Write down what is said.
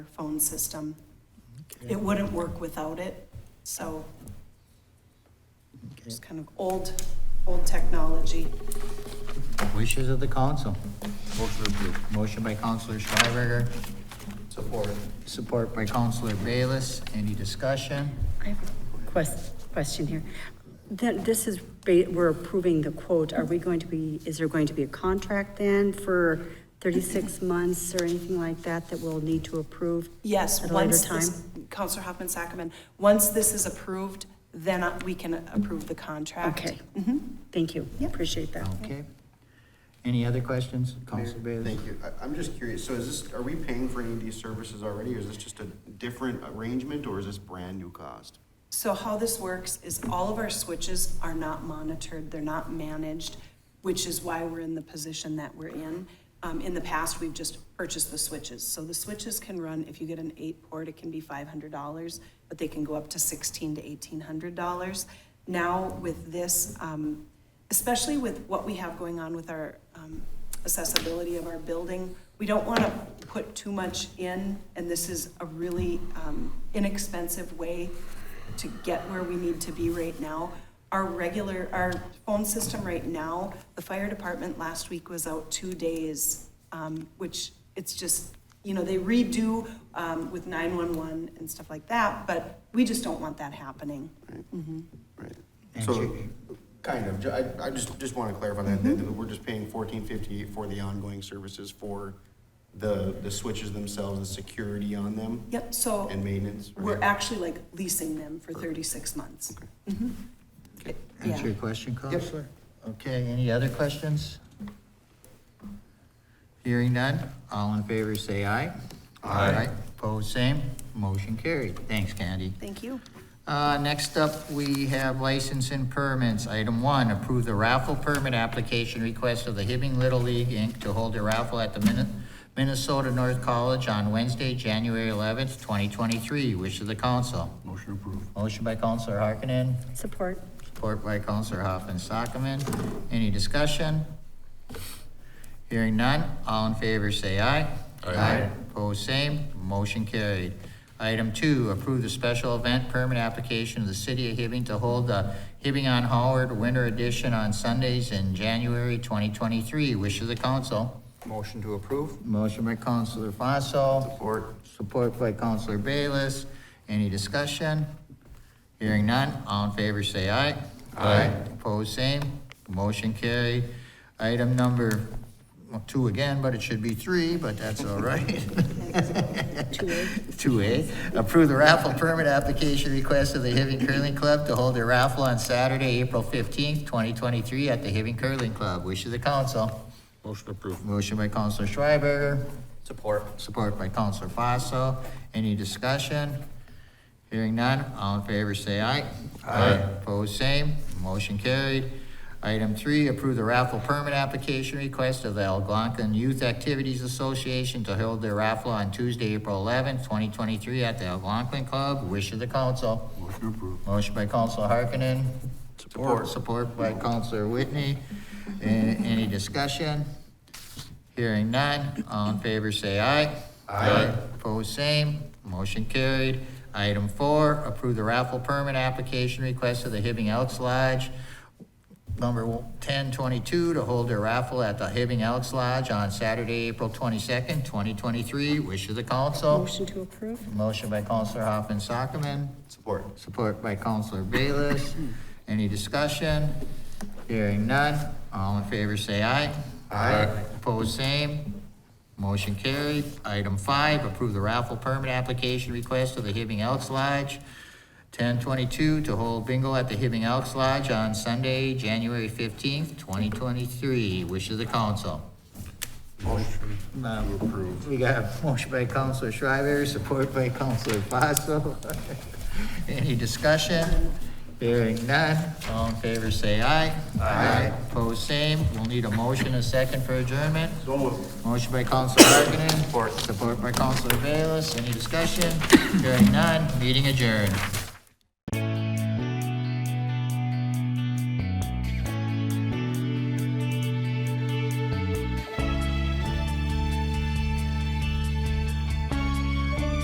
your phone system. It wouldn't work without it, so Okay. it's kind of old, old technology. Wishes of the council. Motion approved. Motion by Councilor Schreiberger. Support. Support by Councilor Bayless. Any discussion? I have a quest, question here. Then, this is, ba- we're approving the quote, are we going to be, is there going to be a contract then for thirty-six Mm-hmm. months or anything like that that we'll need to approve? Yes, At a later once this, Counselor Hoffman Sockman, once this is approved, then I- we can approve the contract. Okay. Thank you, appreciate that. Okay. Any other questions? Councilor Bayless? Thank you. I, I'm just curious, so is this, are we paying for any of these services already, or is this just a different arrangement, or is this brand new cost? So how this works is all of our switches are not monitored, they're not managed, which is why we're in the position that we're in. Um, in the past, we've just purchased the switches. So the switches can run, if you get an eight port, it can be five hundred dollars, but they can go up to sixteen to eighteen hundred dollars. Now with this, um, especially with what we have going on with our, um, accessibility of our building, we don't want to put too much in, and this is a really, um, inexpensive way to get where we need to be right now. Our regular, our phone system right now, the fire department last week was out two days, um, which it's just, you know, they redo, um, with nine-one-one and stuff like that, but we just don't want that happening. Right. And So, you- kind of, Ju- I, I just, just want to clarify that, that that we're just paying fourteen fifty for the ongoing services for the, the switches themselves, the security on them? Yep, so And maintenance? right? we're actually like leasing them for thirty-six months. Mhm. It- Answer Yeah. your question, Counselor? Okay, any other questions? Hearing none, all in favor say aye. Aye. Opposed, same. Motion carried. Thanks, Candy. Thank you. Uh, next up, we have license and permits. Item one, approve the raffle permit application request of the Hibbing Little League, Inc. to hold a raffle at the Min- Minnesota North College on Wednesday, January eleventh, twenty twenty-three. Wish of the council. Motion approved. Motion by Counselor Harkinen, Support, Support by Counselor Hoffman Sockman. Any discussion? Hearing none, all in favor say aye. Aye. Opposed, same, motion carried. Item two, approve the special event permit application of the city of Hibbing to hold the Hibbing on Howard Winter Edition on Sundays in January 2023. Wish of the council. Motion to approve? Motion by Counselor Fossil. Support. Support by Counselor Bayless. Any discussion? Hearing none, all in favor say aye. Aye. Opposed, same. Motion carried. Item number well, two again, but it should be three, but that's all right. two A. Two A, approve the raffle permit application request of the Hibbing Curling Club to hold a raffle on Saturday, April fifteenth, twenty twenty-three at the Hibbing Curling Club. Wish of the council. Motion approved. Motion by Counselor Schreiber, Support. Support by Counselor Fossil. Any discussion? Hearing none, all in favor say aye. Aye. Opposed, same. Motion carried. Item three, approve the raffle permit application request of the Algonquin Youth Activities Association to hold their raffle on Tuesday, April eleventh, twenty twenty-three at the Algonquin Club. Wish of the council. Motion approved. Motion by Counselor Harkinen. Support. Support by Counselor Whitney. A- Any discussion? Hearing none, all in favor say aye. Aye. Opposed, same, motion carried. Item four, approve the raffle permit application request of the Hibbing Elks Lodge, number ten twenty-two, to hold their raffle at the Hibbing Elks Lodge on Saturday, April twenty-second, twenty twenty-three. Wish of the council. Motion to approve? Motion by Counselor Hoffman Sockman. Support. Support by Counselor Bayless. Any discussion? Hearing none. All in favor, say aye. Aye. Opposed, same. Motion carried. Item five, approve the raffle permit application request of the Hibbing Elks Lodge, ten twenty-two, to hold bingo at the Hibbing Elks Lodge on Sunday, January fifteenth, twenty twenty-three. Wish of the council. Motion. Approved. We got a motion by Counselor Shriver, support by Counselor Fossil. Any discussion? Hearing none, all in favor say aye. Aye. Opposed, same. We'll need a motion, a second for adjournment. So moved. Motion by Counselor Harkinen. Support. Support by Counselor Bayless. Any discussion? Hearing none, meeting adjourned.